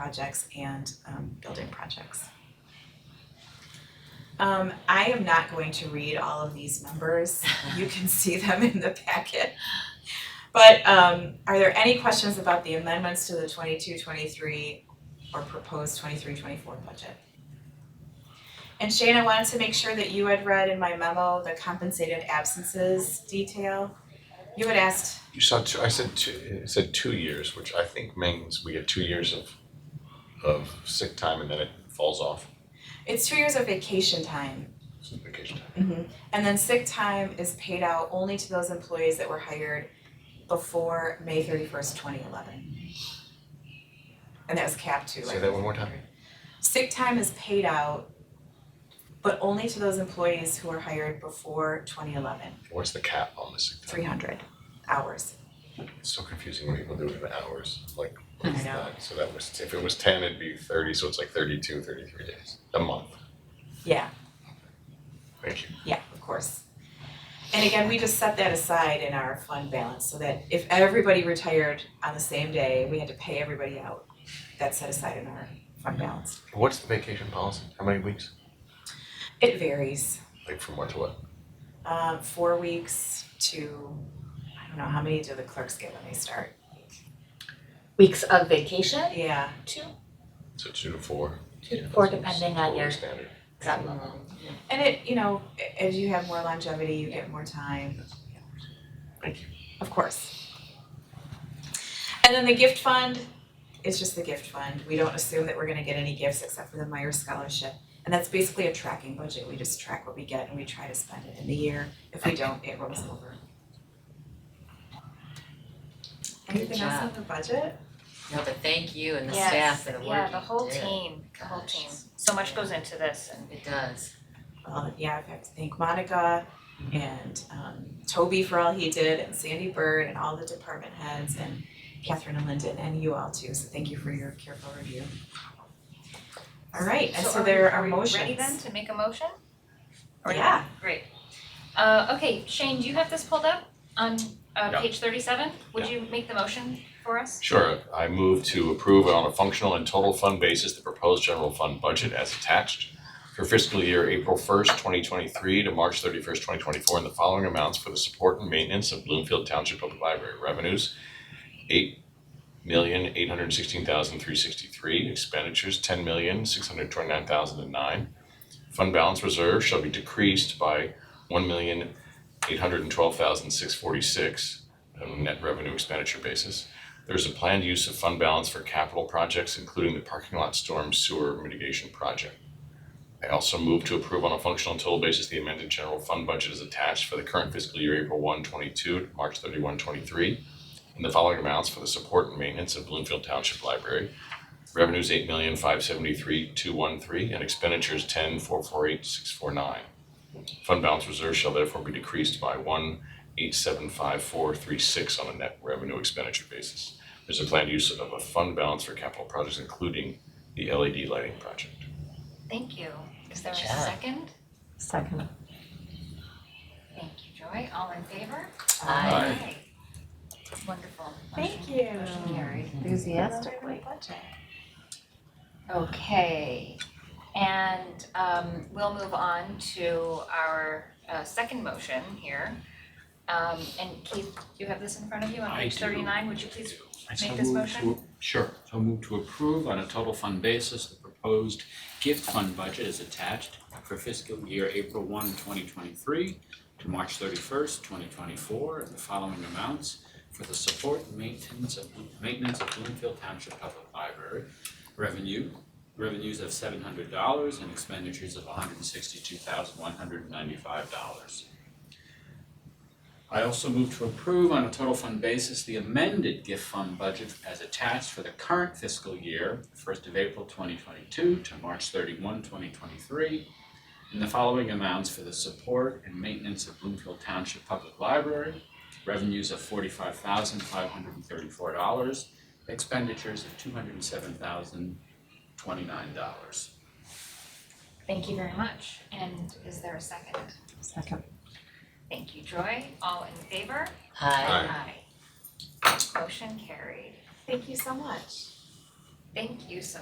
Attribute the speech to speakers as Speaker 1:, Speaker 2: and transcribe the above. Speaker 1: projects and um, building projects. Um, I am not going to read all of these numbers, you can see them in the packet. But um, are there any questions about the amendments to the 22-23 or proposed 23-24 budget? And Shane, I wanted to make sure that you had read in my memo the compensated absences detail. You had asked,
Speaker 2: You saw two, I said two, it said two years, which I think means we get two years of of sick time and then it falls off.
Speaker 1: it's two years of vacation time.
Speaker 2: It's vacation time.
Speaker 1: Mm-hmm. And then sick time is paid out only to those employees that were hired before May thirty first, twenty eleven. And that was capped too, right?
Speaker 2: Say that one more time.
Speaker 1: Sick time is paid out, but only to those employees who were hired before twenty eleven,
Speaker 2: What's the cap on the sick
Speaker 1: three
Speaker 2: time?
Speaker 1: hundred hours.
Speaker 2: It's so confusing when people do it in hours, like
Speaker 1: I
Speaker 2: what's
Speaker 1: know.
Speaker 2: that? So that was, if it was ten, it'd be thirty, so it's like 32, 33 days, a month.
Speaker 1: Yeah,
Speaker 2: Thank you.
Speaker 1: yeah, of course. And again, we just set that aside in our fund balance so that if everybody retired on the same day, we had to pay everybody out. That's set aside in our fund balance.
Speaker 2: What's the vacation policy? How many weeks?
Speaker 1: It varies.
Speaker 2: Like from what to what?
Speaker 1: Uh, four weeks to, I don't know, how many do the clerks get when they start?
Speaker 3: weeks of vacation,
Speaker 1: Yeah,
Speaker 3: two,
Speaker 2: So two to four?
Speaker 3: two to four,
Speaker 2: That's what's
Speaker 3: depending on your
Speaker 2: totally
Speaker 3: job
Speaker 2: standard.
Speaker 3: level.
Speaker 1: and it, you know, a- as you have more longevity, you get more time,
Speaker 2: Thank you.
Speaker 1: of course. And then the gift fund, it's just the gift fund, we don't assume that we're gonna get any gifts except for the Meyer Scholarship. And that's basically a tracking budget, we just track what we get and we try to spend it in the year, if we don't, it rolls over.
Speaker 4: Good
Speaker 1: Anything else
Speaker 4: job.
Speaker 1: on the budget?
Speaker 4: No, but thank you and the
Speaker 5: Yes,
Speaker 4: staff for the work you did.
Speaker 5: Yeah, the whole team, the whole
Speaker 4: Gosh.
Speaker 5: team. So much goes into this and
Speaker 4: It does.
Speaker 1: Well, Uh, yeah, I've got to thank Monica and um Toby for all he did and Sandy Bird and all the department heads and Catherine and Lyndon and you all too, so thank you for your careful review. All right, and so
Speaker 5: are we-
Speaker 1: there are motions.
Speaker 5: Are we ready then to make a motion? Or not?
Speaker 1: Yeah,
Speaker 5: Great. Uh, okay, Shane, do you have this pulled up on
Speaker 2: Yeah.
Speaker 5: uh page thirty-seven? Would you make the motion for us?
Speaker 2: Sure, I move to approve on a functional and total fund basis the proposed general fund budget as attached for fiscal year April first, twenty twenty-three to March thirty-first, twenty twenty-four, in the following amounts for the support and maintenance of Bloomfield Township Public Library revenues. Eight million, eight hundred sixteen thousand, three sixty-three, expenditures, ten million, six hundred twenty-nine thousand and nine. Fund balance reserve shall be decreased by one million, eight hundred and twelve thousand, six forty-six on a net revenue expenditure basis. There's a planned use of fund balance for capital projects, including the parking lot storm sewer mitigation project. I also move to approve on a functional and total basis the amended general fund budget as attached for the current fiscal year, April 1, 22 to March 31, 23, in the following amounts for the support and maintenance of Bloomfield Township Library. Revenues eight million five seventy-three two one three and expenditures ten four four eight six four nine. Fund balance reserve shall therefore be decreased by one eight seven five four three six on a net revenue expenditure basis. There's a planned use of a fund balance for capital projects, including the LED lighting project.
Speaker 5: Thank you. Is there a
Speaker 4: Sure.
Speaker 5: second?
Speaker 3: Second.
Speaker 5: Thank you, Joy. All in favor?
Speaker 4: Aye.
Speaker 5: Wonderful.
Speaker 1: thank
Speaker 5: Motion-
Speaker 1: you.
Speaker 5: Motion carried.
Speaker 3: Enthusiastically.
Speaker 5: Okay, and um we'll move on to our uh second motion here. Um and Keith, do you have this in front of you on
Speaker 6: I
Speaker 5: page
Speaker 6: do.
Speaker 5: thirty-nine? Would you please
Speaker 6: I so
Speaker 5: Make this
Speaker 6: move
Speaker 5: motion?
Speaker 6: to- Sure, so move to approve on a total fund basis, the proposed gift fund budget is attached for fiscal year April 1, 2023 to March thirty-first, twenty twenty-four, in the following amounts for the support and maintenance of, maintenance of Bloomfield Township Public Library. Revenue, revenues of seven hundred dollars and expenditures of hundred and sixty-two thousand, one hundred and ninety-five dollars. I also move to approve on a total fund basis the amended gift fund budget as attached for the current fiscal year, first of April twenty twenty-two to March 31, 2023, in the following amounts for the support and maintenance of Bloomfield Township Public Library, revenues of forty-five thousand five hundred and thirty-four dollars, expenditures of two hundred and seven thousand twenty-nine dollars.
Speaker 5: Thank you very much. And is there a second?
Speaker 3: Second.
Speaker 5: Thank you, Joy. All in favor?
Speaker 4: Aye.
Speaker 2: Aye.
Speaker 5: Motion carried.
Speaker 1: Thank you so much.
Speaker 5: Thank you so